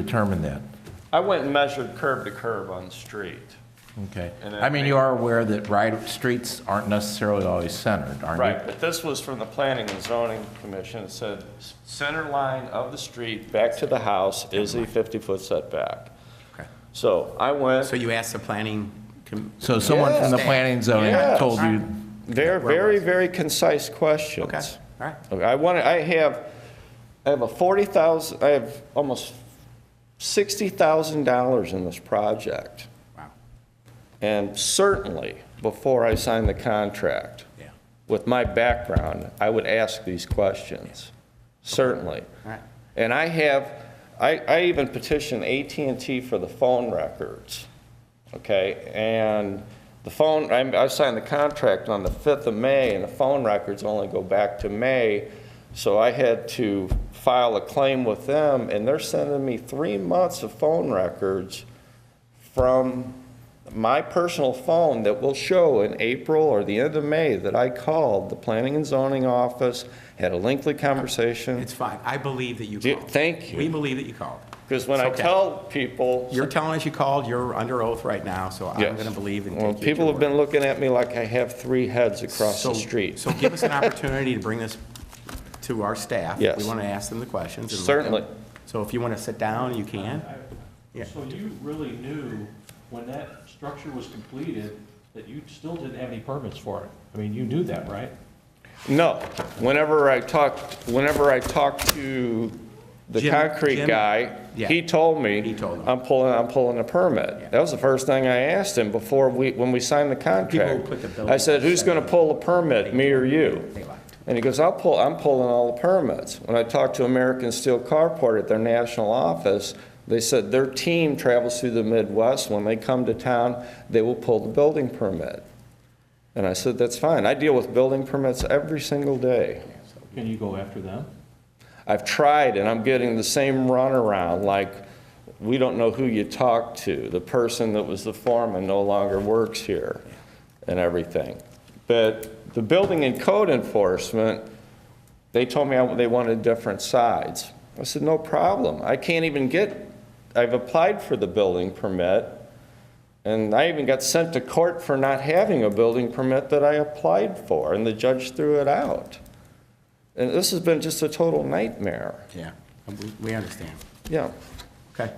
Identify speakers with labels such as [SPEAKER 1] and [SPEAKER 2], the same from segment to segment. [SPEAKER 1] determine that,
[SPEAKER 2] I went and measured curb to curb on the street.
[SPEAKER 1] okay?
[SPEAKER 2] And
[SPEAKER 1] I mean, you are aware that right, streets aren't necessarily always centered, aren't you?
[SPEAKER 2] Right, but this was from the Planning and Zoning Commission. It said, center line of the street back to the house is a 50-foot setback.
[SPEAKER 3] Okay.
[SPEAKER 2] So I went,
[SPEAKER 3] So you asked the planning, com-
[SPEAKER 1] So someone from the
[SPEAKER 3] Yeah.
[SPEAKER 1] planning zoning
[SPEAKER 2] Yeah.
[SPEAKER 1] told you,
[SPEAKER 2] they're
[SPEAKER 3] Where
[SPEAKER 2] very,
[SPEAKER 3] was it?
[SPEAKER 2] very concise questions.
[SPEAKER 3] okay, all right.
[SPEAKER 2] Okay, I want, I have, I have a 40,000, I have almost $60,000 in this project.
[SPEAKER 3] Wow,
[SPEAKER 2] And certainly, before I signed the contract,
[SPEAKER 3] yeah,
[SPEAKER 2] with my background, I would ask these questions, certainly.
[SPEAKER 3] all right.
[SPEAKER 2] And I have, I, I even petitioned at and T for the phone records, okay? And the phone, I, I signed the contract on the 5th of May, and the phone records only go back to May, so I had to file a claim with them, and they're sending me three months of phone records from my personal phone that will show in April or the end of May that I called the Planning and Zoning Office, had a lengthy conversation.
[SPEAKER 3] It's fine. I believe that you
[SPEAKER 2] Do-
[SPEAKER 3] called.
[SPEAKER 2] thank you.
[SPEAKER 3] We believe that you called.
[SPEAKER 2] Because when I
[SPEAKER 3] It's okay.
[SPEAKER 2] tell people,
[SPEAKER 3] You're telling us you called, you're under oath right now, so I'm
[SPEAKER 2] Yes.
[SPEAKER 3] going to believe and take you
[SPEAKER 2] well,
[SPEAKER 3] at your
[SPEAKER 2] people have
[SPEAKER 3] word.
[SPEAKER 2] been looking at me like I have three heads across the
[SPEAKER 3] So-
[SPEAKER 2] street.
[SPEAKER 3] So give us an opportunity to bring this to our staff.
[SPEAKER 2] Yes.
[SPEAKER 3] We want to ask them the questions. and let them-
[SPEAKER 2] Certainly,
[SPEAKER 3] So if you want to sit down, you can. Yeah.
[SPEAKER 4] So you really knew when that structure was completed, that you still didn't have any permits for it? I mean, you knew that, right?
[SPEAKER 2] no. Whenever I talked, whenever I talked to the
[SPEAKER 3] Jim-
[SPEAKER 2] concrete
[SPEAKER 3] Jim-
[SPEAKER 2] guy,
[SPEAKER 3] Yeah.
[SPEAKER 2] he told me.
[SPEAKER 3] He told him.
[SPEAKER 2] I'm pulling, I'm pulling a
[SPEAKER 3] Yeah.
[SPEAKER 2] permit. That was the first thing I asked him before we, when we signed the contract.
[SPEAKER 3] put the building
[SPEAKER 2] I said, who's going to pull a permit, me or you?
[SPEAKER 3] They lied.
[SPEAKER 2] And he goes, I'll pull, I'm pulling all the permits. When I talked to American Steel Carport at their national office, they said their team travels through the Midwest. When they come to town, they will pull the building permit. And I said, that's fine. I deal with building permits every single day.
[SPEAKER 4] Can you go after them?
[SPEAKER 2] I've tried, and I'm getting the same runaround, like, we don't know who you talked to. The person that was the foreman no longer works here and everything. But the building and code enforcement, they told me I- they wanted different sides. I said, no problem. I can't even get, I've applied for the building permit, and I even got sent to court for not having a building permit that I applied for, and the judge threw it out. And this has been just a total nightmare.
[SPEAKER 3] Yeah, we- we understand.
[SPEAKER 2] Yeah,
[SPEAKER 3] Okay.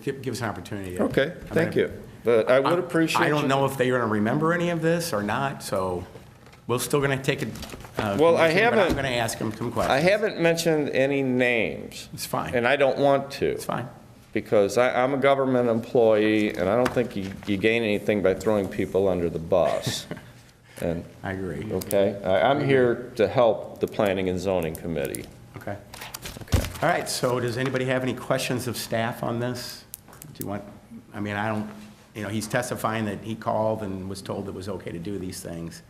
[SPEAKER 3] Give give us an opportunity. to-
[SPEAKER 2] okay,
[SPEAKER 3] I'm
[SPEAKER 2] thank
[SPEAKER 3] gonna-
[SPEAKER 2] you. But I would
[SPEAKER 3] I'm-
[SPEAKER 2] appreciate.
[SPEAKER 3] I don't
[SPEAKER 2] you-
[SPEAKER 3] know if they're going to remember any of this or not, so we're still going to take a. uh,
[SPEAKER 2] Well, I
[SPEAKER 3] condition, but I'm
[SPEAKER 2] haven't-
[SPEAKER 3] going to ask them some questions.
[SPEAKER 2] I haven't mentioned any names.
[SPEAKER 3] It's fine.
[SPEAKER 2] And I don't want to,
[SPEAKER 3] It's fine.
[SPEAKER 2] because I, I'm a government employee, and I don't think you, you gain anything by throwing people under the bus. And,
[SPEAKER 3] I agree.
[SPEAKER 2] okay, I, I'm here to help the Planning and Zoning Committee.
[SPEAKER 3] Okay. All right, so does anybody have any questions of staff on this? Do you want, I mean, I don't, you know, he's testifying that he called and was told it was okay to do these things.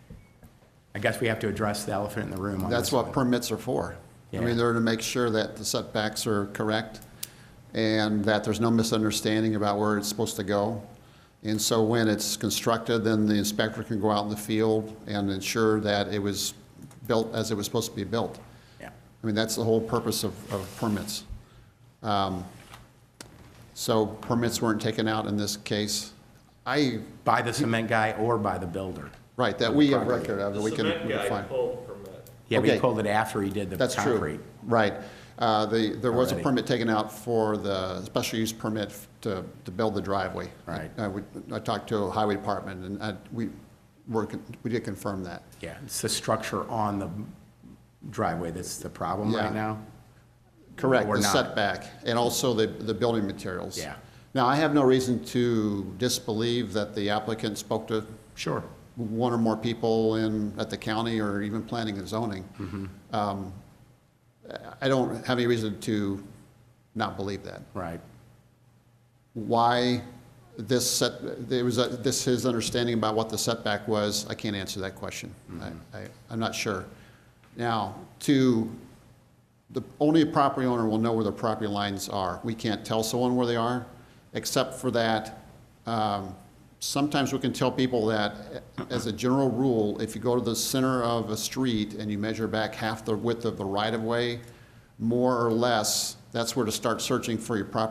[SPEAKER 3] I guess we have to address the elephant in the room on this
[SPEAKER 5] That's what
[SPEAKER 3] one.
[SPEAKER 5] permits are for. I
[SPEAKER 3] Yeah.
[SPEAKER 5] mean, they're to make sure that the setbacks are correct and that there's no misunderstanding about where it's supposed to go. And so when it's constructed, then the inspector can go out in the field and ensure that it was built as it was supposed to be built.
[SPEAKER 3] Yeah.
[SPEAKER 5] I mean, that's the whole purpose of, of permits. Um, So permits weren't taken out in this case. I,
[SPEAKER 3] By the cement guy or by the builder.
[SPEAKER 5] right, that we have record of, that we can we can find.
[SPEAKER 3] Yeah, we
[SPEAKER 5] Okay.
[SPEAKER 3] pulled it after he did the
[SPEAKER 5] That's true.
[SPEAKER 3] concrete.
[SPEAKER 5] Right. Uh, The, there was a
[SPEAKER 3] Already.
[SPEAKER 5] permit taken out for the special use permit f- to, to build the driveway.
[SPEAKER 3] Right.
[SPEAKER 5] I would- I talked to a highway department, and I, we were, con- we did confirm that.
[SPEAKER 3] Yeah, it's the structure on the driveway that's the problem
[SPEAKER 5] Yeah.
[SPEAKER 3] right now?
[SPEAKER 5] Correct,
[SPEAKER 3] Or
[SPEAKER 5] the
[SPEAKER 3] not.
[SPEAKER 5] setback, and also the, the building materials.
[SPEAKER 3] Yeah.
[SPEAKER 5] Now, I have no reason to disbelieve that the applicant spoke to
[SPEAKER 3] Sure.
[SPEAKER 5] one or more people in, at the county or even planning and zoning.
[SPEAKER 3] Mm-hmm.
[SPEAKER 5] Um, I- I don't have any reason to not believe that.
[SPEAKER 3] Right.
[SPEAKER 5] why this set, there was, a- this his understanding about what the setback was, I can't answer that question. I, I, I'm not sure. Now, to, the, only a property owner will know where the property lines are. We can't tell someone where they are, except for that, um, sometimes we can tell people that, as a general rule, if you go to the center of a street and you measure back half the width of the right-of-way, more or less, that's where to start searching for your property